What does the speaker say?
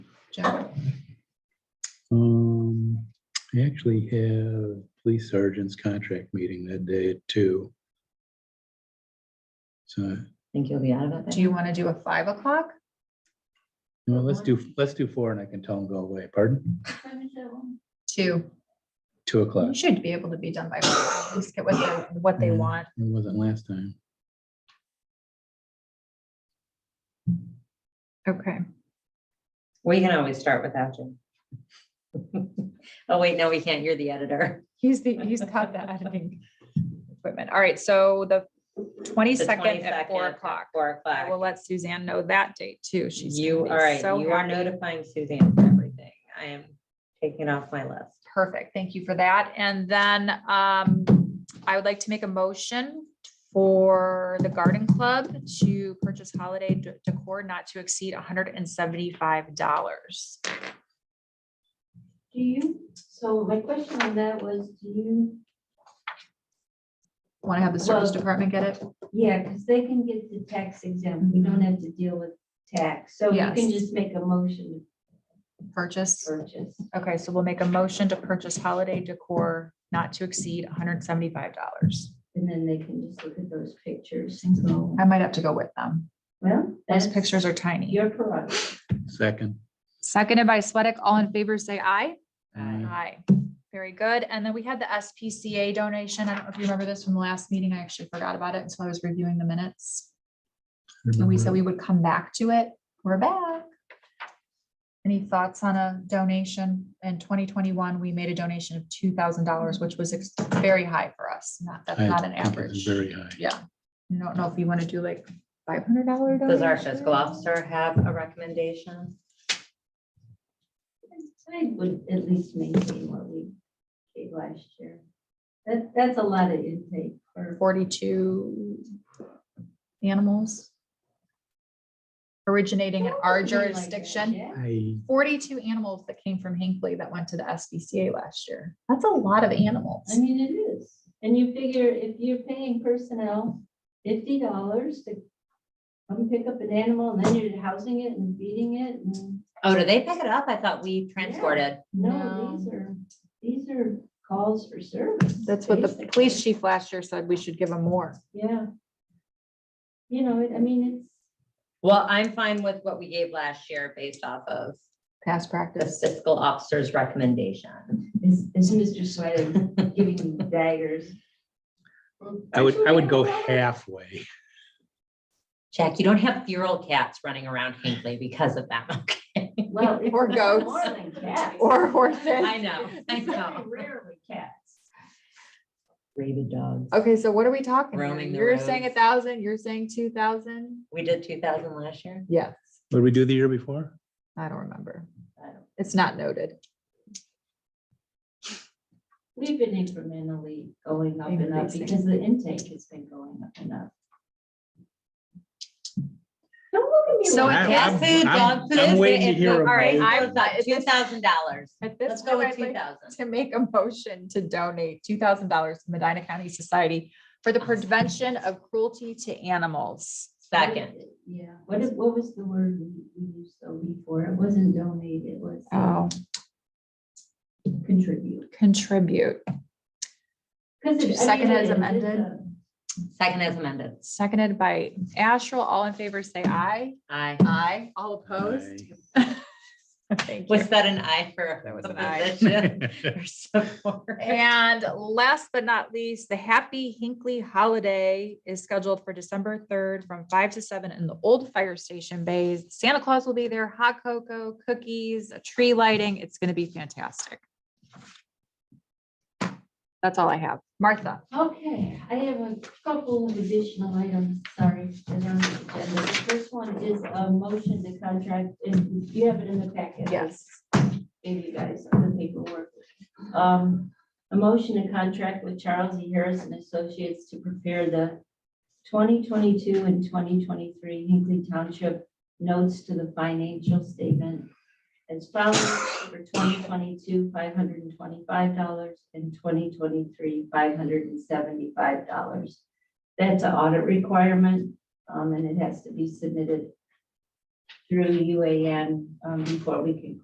Jack? Um, I actually have police sergeant's contract meeting that day at two. So, Think you'll be out of it? Do then? you want to do a five o'clock? well, let's do, let's do four and I can tell them go away. Pardon? Two. Two o'clock. You should be able to be done by, four. at least get what they, what they Yeah, want. It wasn't last time. Okay. We can always start without you. Oh, wait, no, we can't. You're the editor. He's the, he's got the editing equipment. All right, so the The twenty-second at 22nd four at o'clock. Four I will o'clock. let Suzanne know that date too. She's. gonna You, all be right, so you are happy. notifying Suzanne for everything. I am taking it off my list. Perfect. Thank you for that. And then um, I would like to make a motion for the garden club to purchase holiday d- decor not to exceed hundred and seventy-five dollars. Do you, so my question on that was, do you, Want to have the service Well- department get it? yeah, because they can get the tax exempt, we don't have to deal with tax, so you can Yes. just make a motion Purchase? to purchase. Okay, so we'll make a motion to purchase holiday decor not to exceed hundred and seventy-five dollars. And then they can just look at those pictures and go, I might have to go with them. well, Those that's pictures are tiny. your prerogative. Second. Seconded by Sweattick. All in favor, say aye. uh, Aye. Very good. And then we had the SPCA donation. I don't know if you remember this from the last meeting. I actually forgot about it until I was reviewing the minutes. And we Mm-hmm. said we would come back to it. We're back. Any thoughts on a donation? In twenty twenty-one, we made a donation of two thousand dollars, which was ex- very high for us. Not, that's I not an think it's average. Very high. Yeah. I don't know if you want to do like five hundred dollar. Does our fiscal officer have a recommendation? I would at least maintain what we did last year. That, that's a lot of intake for, Forty-two animals originating in our jurisdiction. I, 42 animals that came from Hinckley that went to the SBCA last year. That's a lot of I animals. mean, it is, and you figure if you're paying personnel fifty dollars to come pick up an animal, and then you're housing it and feeding it, and Oh, do they pick it up? I thought we transported. No. no, these are, these are calls for service. That's what the basically. police chief last year said, we should give them more. Yeah. You know, it- I mean, Well, I'm fine with what we gave last year based off of Past the practice. fiscal officer's recommendation. it's, is, is Mr. Swedek giving you daggers? I would, I would go halfway. Jack, you don't have feral cats running around Hinckley because of that. okay? Well, if Or not goats. more than cats. Or horses. I know, I know. Rarely cats. Rated dogs. Okay, so what are we talking? here? Roaming the You're saying a roads. thousand, you're saying two thousand? We did two thousand last year. Yes, What did we do the year before? I don't remember. I don't- It's not noted. We've been incrementally going up and up Increasing. because the intake has been going up and up. Don't look at me. So it cat I- like Cat I'm- food, I'm- dog food. I'm waiting to it's- hear a All right, vote. I was like, two thousand dollars. At this Let's point, go with I'd two like thousand. to make a motion to donate two thousand dollars to Medina County Society for the prevention of cruelty to animals. what it- Second, Yeah, what is, what was the word we we used so before? It wasn't donate, it was Oh, contribute. contribute. 'Cause it- I mean, Second it as is, it's amended. a- second as amended. Seconded by Asherle. All in favor, say aye. Aye. Aye. All opposed? Aye. Thank you. Was that an aye for? That was the an aye. position or support? And last but not least, the Happy Hinkley Holiday is scheduled for December third from five to seven in the old fire station bays. Santa Claus will be there, hot cocoa, cookies, a tree lighting. It's going to be fantastic. That's all I have. Martha, Okay, I have a couple of additional items, sorry. that are on the agenda. The First one is a motion to contract, and you have it in the packet. Yes. Maybe you guys on the paperwork. Um, a motion to contract with Charles E. Harris and Associates to prepare the twenty twenty-two and twenty twenty-three Hinkley Township notes to the financial statement as follows for twenty twenty-two, five hundred and twenty-five dollars and twenty twenty-three, five hundred and seventy-five dollars. That's an audit requirement, um, and it has to be submitted through UAN, um, before we can